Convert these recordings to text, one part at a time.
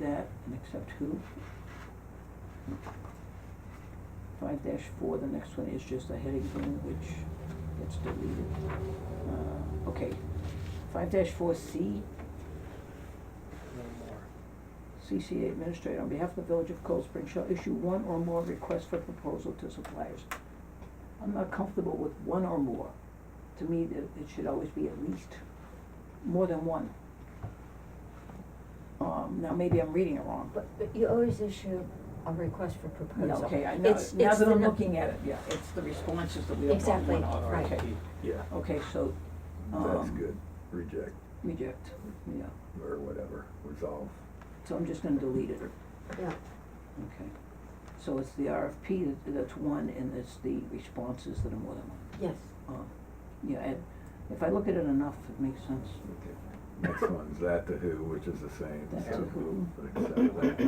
that and accept who? Five dash four, the next one is just a heading thing which gets deleted. Uh, okay, five dash four C, no more. CCA Administrator, on behalf of the Village of Cold Spring shall issue one or more requests for proposal to suppliers. I'm not comfortable with one or more. To me, it, it should always be at least more than one. Um, now, maybe I'm reading it wrong, But, but you always issue a request for No, proposal. okay, I know, It's- now it's that the I'm no- looking at it, yeah, it's the responses that we don't want Exactly, one of, right. okay. Yeah, Okay, so, that's um, good. Reject reject, yeah, or whatever, resolve. so I'm just gonna delete it, Yeah, okay. So it's the RFP that, that's one, and it's the responses that are more than one. yes. Um, yeah, and if I look at it enough, it makes sense. Okay. Next one's that to who, which is the same. That so to who. we'll Accept that.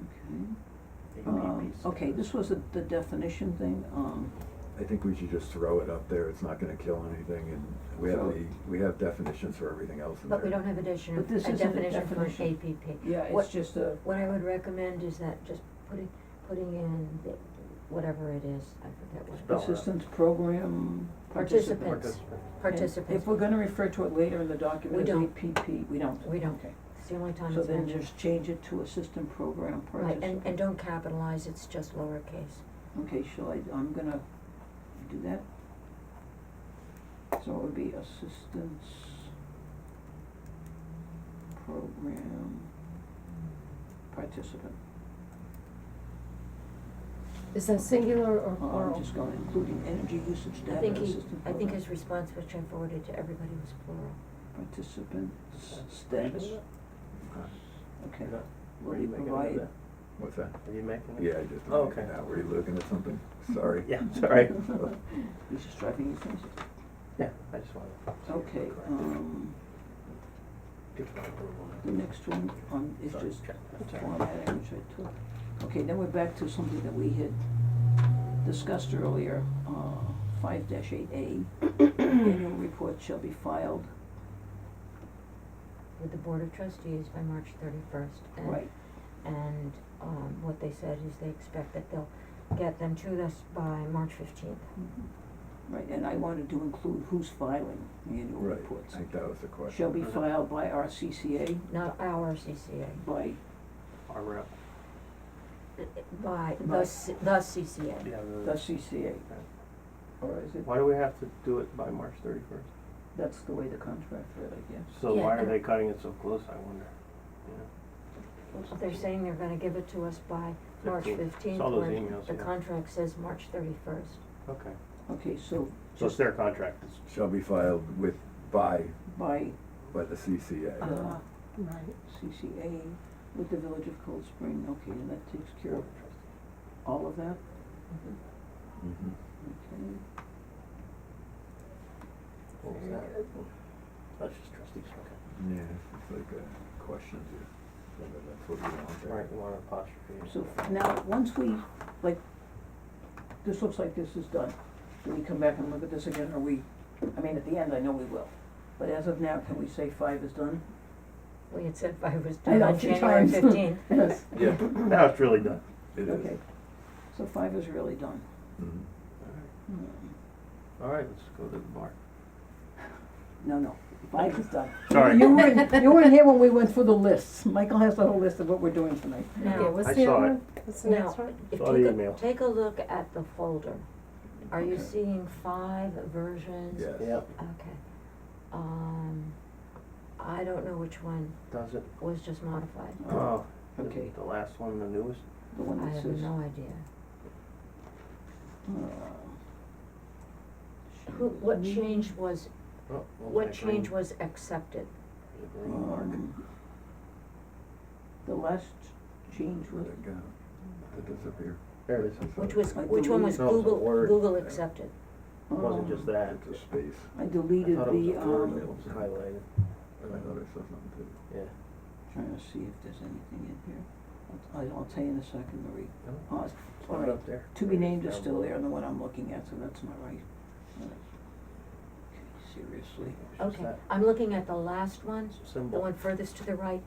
Okay. They Um, need peace. okay, this was the, the definition thing, um, I think we should just throw it up there. It's not gonna kill anything and we have So- the, we have definitions for everything else in there. But we don't have a definition, a But this isn't a definition for an APP. definition. yeah, What- it's just a, What I would recommend is that just putting, putting in the, whatever it is, I forget what. it is. Spell. assistance program participant. Participants. Participant. And Participants, If we're gonna refer to it later in the We document as don't. APP, we don't. We don't. Okay. it's the only time So it's then mentioned. just change it to assistant program Right, participant. and, and don't capitalize, it's just lowercase. Okay, shall I, I'm gonna do that. So it would be assistance program participant. Is that singular or Oh, plural? I'm just going, including energy usage I data, think he, assistant I program. think his response, which I forwarded to everybody, was plural. Participant s- Reading status, it? Huh? okay. You're not- Will were you you making provide- it up What's that? there? Are you making it? Yeah, I just. Oh, okay. Now, were you looking at something? Sorry. Yeah, sorry. He's just driving you crazy. Yeah, I just wanted. to see if we're Okay, correct. um, Good for approval. the next one, um, is Sorry, just check. I'm sorry. formatting, which I took. Okay, then we're back to something that we had discussed earlier, uh, five dash eight A. Annual report shall be filed, With the Board of Trustees by March thirty-first. right, And, um, what they said is they expect that they'll get them to us by March fifteenth. mhm, right, and I wanted to include who's filing the annual Right, reports. I think that was the question. Shall be filed by our CCA, not our CCA, by, Our rep, by By- the, C- the CCA. yeah, the- the CCA, Right. or is it, Why do we have to do it by March thirty-first? that's the way the contract read, I guess. So Yeah, why are and- they cutting it so close, I wonder? They're saying they're gonna give it to us by March Fifteenth. fifteenth, Saw those when emails, the yeah. contract says March thirty-first. Okay, Okay, so so it's their contract, it's Shall be filed with, by, by by the CCA. uh, Right. CCA with the Village of Cold Spring, okay, and that takes care of Board of Trustees. all of that, Mhm. okay? What was that? That's just trustees, okay. Yeah, it's like a question to, whether that's what you want there. Right, you want an apostrophe. or So something. now, once we, like, this looks like this is done, do we come back and look at this again, or we, I mean, at the end, I know we will. But as of now, can we say five is done? We had said I was I due know, on two January times. fifteenth. Yes, Yeah, Now it's really done. it is. okay, so five is really done. Mhm. Hmm. All right, let's go to the bar. No, no, five is done. Sorry. You weren't, you weren't here when we went through the lists, Michael has the whole list of what we're doing tonight. Okay, Now, what's I the saw other it. one? What's the next now, one? if, Saw the take a, email. take a look at the folder. Are you Okay. seeing five versions? Yes. Yep, Okay. Um, I don't know which one does it? was just modified. Oh, is Okay. it the last one, the newest? The one I that have says, no idea. uh, Who, what change was, Oh, well, what that green- change was accepted? The green mark, Um, The last change was, Where'd it go? It disappeared. there it is. Which was, I which one was believe- No, it's a Google, word. Google accepted? It wasn't just um, that. It's a space. I I deleted thought it was the, a word that um, was highlighted. I noticed something too. Yeah. trying to see if there's anything in here. I'll, I'll tell you in a second, Marie. No, Uh, it's all not right. up there. To be named is Down still below. there, and the one I'm looking at, so that's not right. All right. Okay, seriously. It's just Okay, that I'm looking at the last one, symbol. the one furthest to the right,